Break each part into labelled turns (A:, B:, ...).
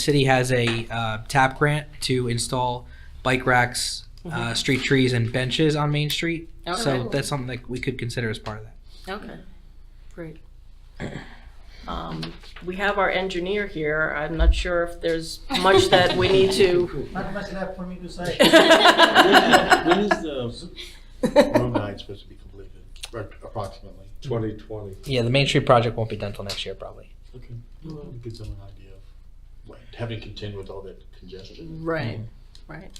A: City has a uh, TAP grant to install bike racks, uh, street trees, and benches on Main Street. So
B: Mm-hmm. Okay.
A: that's something that we could consider as part of that.
B: Okay, great. Um, We have our engineer here. I'm not sure if there's much that we need to.
C: Not much left for me to say.
D: When is the room nine supposed to be completed, Right, approximately?
E: 2020.
A: Yeah, the Main Street project won't be done till next year, probably.
D: Okay, well, it gives them an idea of, like, having contend with all that congestion.
B: Right, right.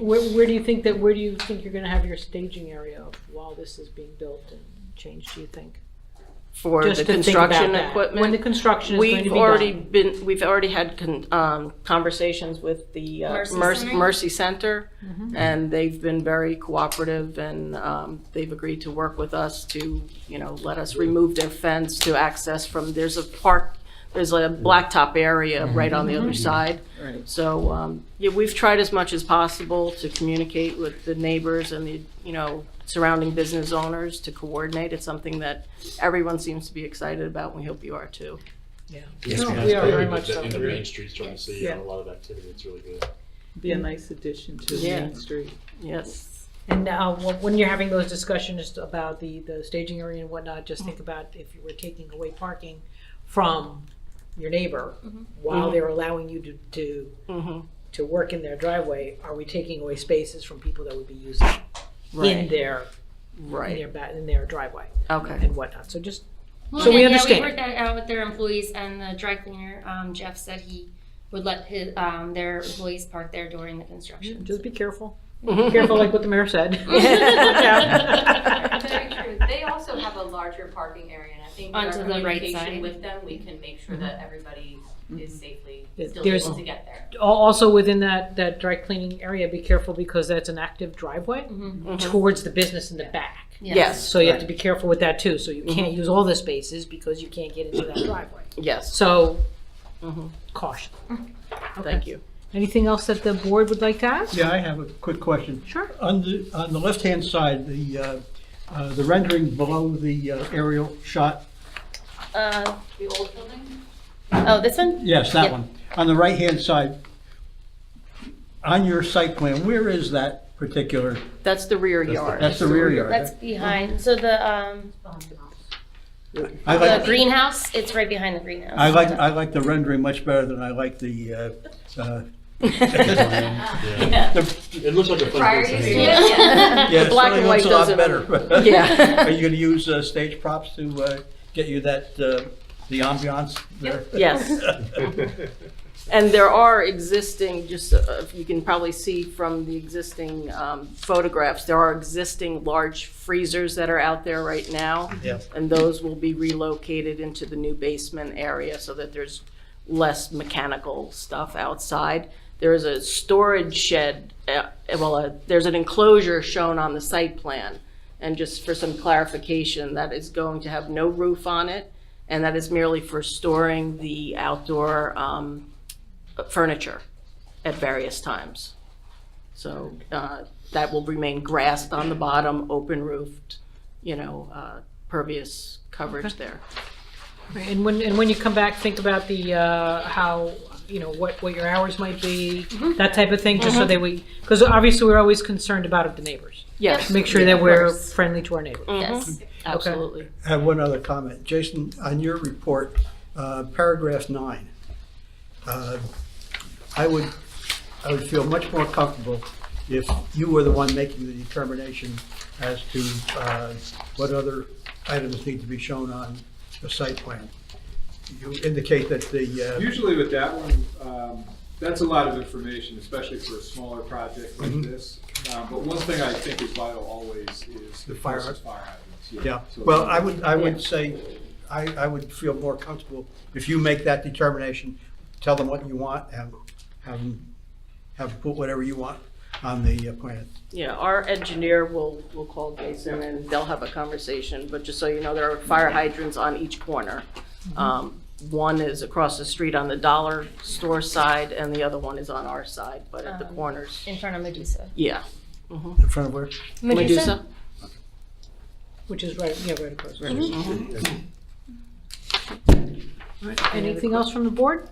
F: Where, where do you think that, where do you think you're gonna have your staging area of while this is being built and changed, do you think?
B: For
F: Just
B: the
F: to think about
B: construction
F: that. When the
B: equipment.
F: construction is going to be
B: We've
F: done.
B: already been, we've already had con- um, conversations with the uh,
G: Mercy
B: Merc-
G: Center?
B: Mercy Center,
F: Mm-hmm.
B: and they've been very cooperative, and um, they've agreed to work with us to, you know, let us remove their fence to access from, there's a park, there's a blacktop area
F: Mm-hmm.
B: right on the other side.
C: Right.
B: So, um, yeah, we've tried as much as possible to communicate with the neighbors and the, you know, surrounding business owners to coordinate. It's something that everyone seems to be excited about, and we hope you are too.
A: Yes,
F: No,
A: ma'am.
F: we are very
D: But
F: much
D: the-
F: so.
D: In the main streets, trying to see
C: Yeah.
D: a lot of activity, it's really good.
C: Be a nice addition to
B: Yeah.
C: Main Street.
B: Yes.
F: And now, wh- when you're having those discussions about the, the staging area and whatnot, just think about if you were taking away parking from your neighbor
B: Mm-hmm.
F: while they're allowing you to, to,
B: Mhm.
F: to work in their driveway, are we taking away spaces from people that would be using in
B: Right.
F: their, in their,
B: Right.
F: ba- in their driveway
B: Okay.
F: and whatnot? So just
G: Well,
F: So we
G: then,
F: understand.
G: Yeah, we worked that out with their employees and the dry cleaner. Um, Jeff said he would let his, um, their employees park there during the construction.
C: Mm-hmm.
F: Just be careful. Be careful, like what the mayor said. Watch
G: Yeah.
H: Very true. They also have a larger parking area, and I think with our
G: Onto the right side.
H: communication with them, we can make sure that everybody is safely
F: There-
H: still
F: there's-
H: able to get there.
F: out. Al- Also within that, that dry cleaning area, be careful because that's an active driveway towards the business in the back.
B: Yes.
F: So you have to be careful with that too. So you can't use all the spaces because you can't get into that driveway.
B: Yes.
F: So
B: Mhm.
F: caution.
B: Thank you.
F: Anything else that the board would like to ask?
I: Yeah, I have a quick question.
F: Sure.
I: On the, on the left-hand side, the, uh, uh, the rendering below the uh, aerial shot,
J: Uh,
H: The old building?
J: oh, this one?
I: yes, that
J: Yep.
I: one. On the right-hand side, on your site plan, where is that particular,
B: That's the rear yard.
I: that's the rear
J: That's
I: yard?
J: behind, so the, um,
I: I
J: the
I: like,
J: greenhouse, it's right behind the greenhouse.
I: I like, I like the rendering much better than I like the, uh, uh,
D: Yeah. It looks like a fun place to hang out.
J: Yeah.
I: yeah, it
B: black and
I: certainly
B: white
I: looks a lot
B: doesn't-
I: better.
B: Yeah.
I: Are you gonna use uh, stage props to uh, get you that, uh, the ambiance there?
B: Yes. And there are existing, just, uh, if you can probably see from the existing um, photographs, there are existing large freezers that are out there right now.
I: Yeah.
B: And those will be relocated into the new basement area so that there's less mechanical stuff outside. There is a storage shed, uh, well, uh, there's an enclosure shown on the site plan. And just for some clarification, that is going to have no roof on it, and that is merely for storing the outdoor um, furniture at various times. So uh, that will remain grassed on the bottom, open roofed, you know, uh, pervious coverage there.
F: Right, And when, and when you come back, think about the, uh, how, you know, what, what your hours might be,
B: Mm-hmm.
F: that type of thing, just so that we, because obviously we're always concerned about the neighbors.
B: Yes, Mm-hmm.
F: Make sure
B: yeah,
F: that
B: of
F: we're
B: course.
F: friendly to our neighbors.
J: Yes.
B: Absolutely.
I: I have one other comment. Jason, on your report, uh, paragraph nine, uh, I would, I would feel much more comfortable if you were the one making the determination as to uh, what other items need to be shown on the site plan. You indicate that the, uh,
E: Usually with that one, um, that's a lot of information, especially for a smaller project like
I: mhm.
E: this. Um, But one thing I think is vital always is.
I: The fire
E: versus
I: hydrant.
E: Fire hydrants.
I: uh, yeah,
E: So-
I: well, I would, I
B: Yeah.
I: would say, I, I would feel more comfortable if you make that determination, tell them what you want, and have them, have them put whatever you want on the uh, plan.
B: Yeah, our engineer will, will call Jason and they'll have a conversation, but just so you know, there are fire hydrants on each corner. Um, One is across the street on the dollar store side and the other one is on our side, but at the
J: Um,
B: corners.
J: In front of Medusa.
B: Yeah. Mm-hmm.
I: In front of where?
B: Medusa?
F: Which is right, yeah, right across.
B: Mhm.
F: Anything else from the board?